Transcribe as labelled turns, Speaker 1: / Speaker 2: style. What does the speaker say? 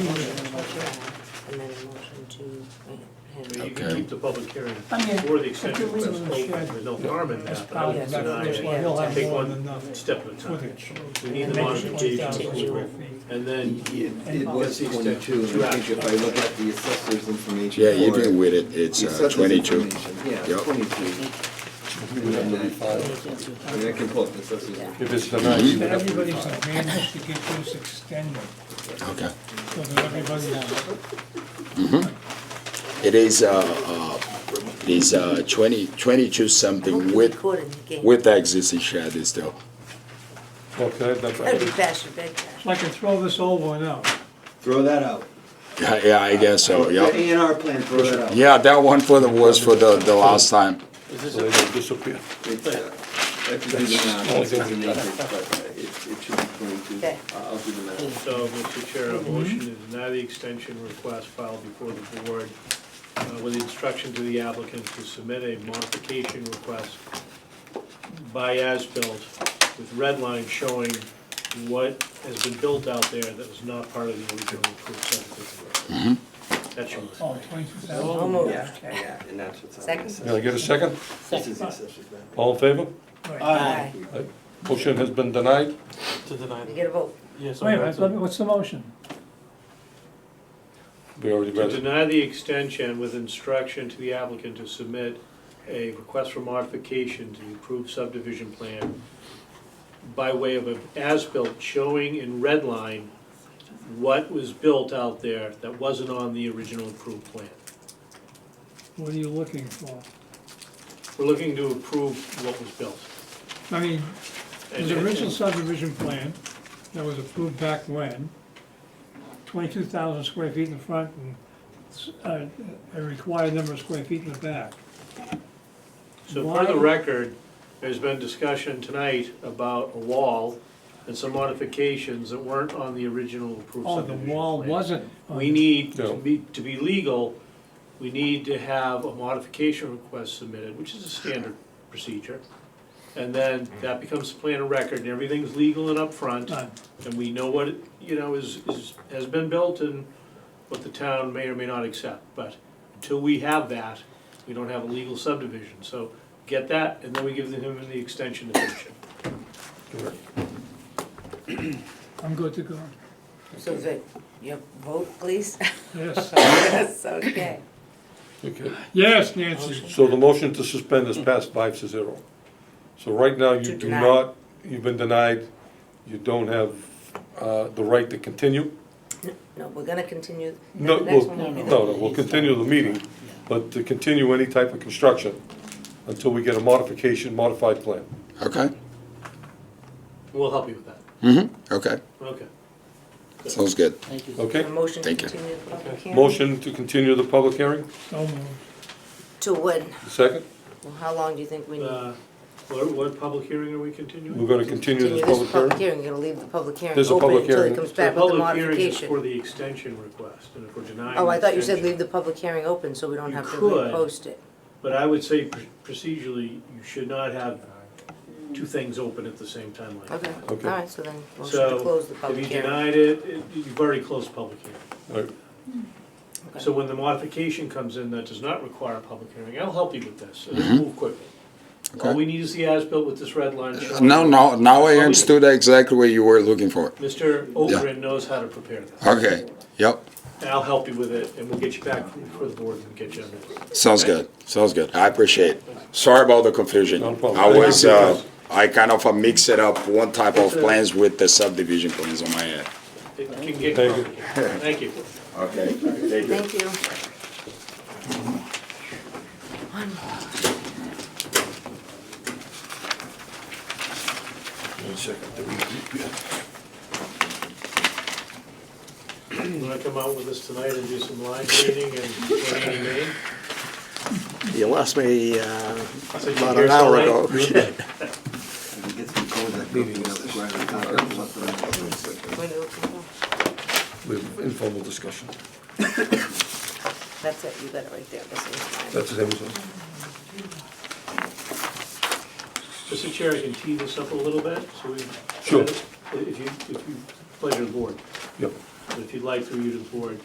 Speaker 1: and then a motion to
Speaker 2: You
Speaker 1: grant him.
Speaker 2: can
Speaker 3: Okay.
Speaker 2: keep the public hearing
Speaker 4: I mean,
Speaker 2: for the
Speaker 4: if you're
Speaker 2: extension request
Speaker 4: leaving the
Speaker 2: open,
Speaker 4: shed,
Speaker 2: there's no harm in
Speaker 4: that's
Speaker 2: that, but I
Speaker 4: probably
Speaker 2: would
Speaker 1: exactly
Speaker 2: deny
Speaker 1: what
Speaker 2: it.
Speaker 1: you want.
Speaker 4: why he'll have
Speaker 2: Take
Speaker 4: more
Speaker 2: one
Speaker 4: than enough
Speaker 2: Step at a time.
Speaker 4: footage.
Speaker 2: We need the
Speaker 1: Motion to continue.
Speaker 2: modifications, and then,
Speaker 5: It it was twenty-two, and I think if I look at the assessor's information.
Speaker 3: Yeah, you
Speaker 5: for it,
Speaker 3: do with it, it's
Speaker 5: the
Speaker 3: uh,
Speaker 5: assessor's
Speaker 3: twenty-two.
Speaker 5: information, Yeah,
Speaker 3: Yep.
Speaker 5: twenty-two. I mean, I can pull up the assessor's.
Speaker 6: If it's denied, you would have to
Speaker 4: Everybody's
Speaker 6: refile.
Speaker 4: advantage to get those extended,
Speaker 3: Okay.
Speaker 4: so that everybody's,
Speaker 3: It is, uh, uh, it is uh, twenty, twenty-two something with, with the existing shed is still.
Speaker 6: Okay, that's,
Speaker 1: That'd be
Speaker 6: right.
Speaker 1: faster, big faster.
Speaker 4: so I can throw this old one out.
Speaker 5: Throw that out.
Speaker 3: Yeah, yeah, I guess so,
Speaker 5: The
Speaker 3: Oh, yeah.
Speaker 5: A and R plan, throw that out.
Speaker 3: Yeah, that one for the, was for the, the last time.
Speaker 6: so they will disappear.
Speaker 5: It's, uh, I have to do the math, it's in the acres, but uh, it, it should be twenty-two.
Speaker 1: Okay.
Speaker 5: I'll I'll do the math.
Speaker 2: so, Mr. Chair,
Speaker 4: Mm-hmm.
Speaker 2: a motion to deny the extension request filed before the board uh, with instruction to the applicant to submit a modification request by as-built with red lines showing what has been built out there that was not part of the original approved subdivision. That's your motion.
Speaker 4: Oh, twenty-two thousand.
Speaker 1: Almost.
Speaker 5: Yeah, yeah, and that's what's on the
Speaker 1: Oh, Second.
Speaker 6: Can I
Speaker 5: assessor's.
Speaker 6: get a second?
Speaker 5: This is the assessor's map.
Speaker 6: All in favor?
Speaker 1: Aye.
Speaker 6: Aye. Motion has been denied.
Speaker 7: To deny,
Speaker 1: You get a vote.
Speaker 7: yes.
Speaker 4: Wait a minute, let me- what's the motion?
Speaker 6: We already
Speaker 2: To
Speaker 6: read it.
Speaker 2: deny the extension with instruction to the applicant to submit a request for modification to the approved subdivision plan by way of an as-built showing in red line what was built out there that wasn't on the original approved plan.
Speaker 4: What are you looking for?
Speaker 2: We're looking to approve what was built.
Speaker 4: I mean,
Speaker 2: And-
Speaker 4: there's an original subdivision plan that was approved back when, twenty-two thousand square feet in the front and uh, a required number of square feet in the back.
Speaker 2: So for the
Speaker 4: Why-
Speaker 2: record, there's been discussion tonight about a wall and some modifications that weren't on the original approved
Speaker 4: Oh, the
Speaker 2: subdivision plan.
Speaker 4: wall wasn't. on
Speaker 2: We need, to
Speaker 6: No.
Speaker 2: be, to be legal, we need to have a modification request submitted, which is a standard procedure. And then that becomes the plan of record, and everything's legal and upfront,
Speaker 4: done.
Speaker 2: and we know what, it, you know, is, is, has been built and what the town may or may not accept. But until we have that, we don't have a legal subdivision, so get that, and then we give him the extension to finish it.
Speaker 6: Correct.
Speaker 4: I'm good to go.
Speaker 1: So is it, your vote, please?
Speaker 4: Yes,
Speaker 1: Yes, okay.
Speaker 6: Okay.
Speaker 4: yes, Nancy.
Speaker 6: So the motion to suspend is passed five to zero. So right now,
Speaker 1: To
Speaker 6: you do
Speaker 1: deny.
Speaker 6: not, you've been denied, you don't have uh, the right to continue.
Speaker 1: No, we're gonna continue.
Speaker 6: No,
Speaker 1: The next
Speaker 6: we'll,
Speaker 1: one will be the-
Speaker 6: no, no, we'll continue the meeting, but to continue any type of construction until we get a modification, modified plan.
Speaker 3: Okay,
Speaker 2: We'll help you with that,
Speaker 3: mm-hmm, okay,
Speaker 2: okay.
Speaker 3: sounds good.
Speaker 7: Thank you.
Speaker 6: Okay?
Speaker 1: A motion to
Speaker 3: Thank you.
Speaker 1: continue the public hearing.
Speaker 6: Motion to continue the public hearing,
Speaker 4: So moved.
Speaker 1: To when?
Speaker 6: second.
Speaker 1: Well, how long do you think we need?
Speaker 2: Uh, What, what public hearing are we continuing?
Speaker 6: We're gonna continue this
Speaker 1: Continue this
Speaker 6: public
Speaker 1: public
Speaker 6: hearing.
Speaker 1: hearing, you're gonna leave the public hearing
Speaker 6: There's a
Speaker 1: open
Speaker 6: public
Speaker 1: until he
Speaker 6: hearing.
Speaker 1: comes
Speaker 2: The
Speaker 1: back with the
Speaker 2: public hearing is for
Speaker 1: modification.
Speaker 2: the extension request, and if we're denying.
Speaker 1: Oh, I
Speaker 2: the
Speaker 1: thought you said
Speaker 2: extension-
Speaker 1: leave the public hearing open, so we don't
Speaker 2: You
Speaker 1: have to
Speaker 2: could.
Speaker 1: repost it.
Speaker 2: But I would say pr- procedurally, you should not have two things open at the same time like
Speaker 1: Okay,
Speaker 2: that.
Speaker 1: all
Speaker 6: Okay.
Speaker 1: right, so then, motion to
Speaker 2: So,
Speaker 1: close the
Speaker 2: if
Speaker 1: public
Speaker 2: you
Speaker 1: hearing.
Speaker 2: denied it, it- you've already closed the public hearing.
Speaker 6: All right,
Speaker 1: Okay.
Speaker 2: So when the modification comes in that does not require a public hearing, I'll help you with this, and it'll move quickly. All
Speaker 3: Mm-hmm. Okay.
Speaker 2: we need is the as-built with this red line showing.
Speaker 3: No, no, now I understood exactly what you were looking for.
Speaker 2: Mr. Ogrin knows how to prepare that,
Speaker 3: Okay, yep,
Speaker 2: and I'll help you with it, and we'll get you back before the board and get you on this.
Speaker 3: sounds good, sounds good, I appreciate it. Sorry about the confusion.
Speaker 6: No problem.
Speaker 3: I was, uh, I kind of uh, mixed it up, one type of plans with the subdivision plans on my head.
Speaker 2: It can get
Speaker 6: Thank you.
Speaker 2: complicated. Thank you.
Speaker 3: Okay, thank you.
Speaker 1: Thank you.
Speaker 2: You wanna come out with us tonight and do some line reading and what do you mean?
Speaker 8: You lost me uh,
Speaker 2: So you
Speaker 8: about
Speaker 2: hear
Speaker 8: an hour
Speaker 2: something?
Speaker 8: ago.
Speaker 5: I can get some Prozac, you know, that's where I got it, what's the-
Speaker 1: When do we go?
Speaker 6: we have informal discussion.
Speaker 1: That's it, you got it right there, this is mine.
Speaker 6: That's everything.
Speaker 2: Mr. Chair, I can tee this up a little bit, so we.
Speaker 6: Sure.
Speaker 2: If you, if you, pleasure of the board,
Speaker 6: Yep.
Speaker 2: but if you'd like through you to the board,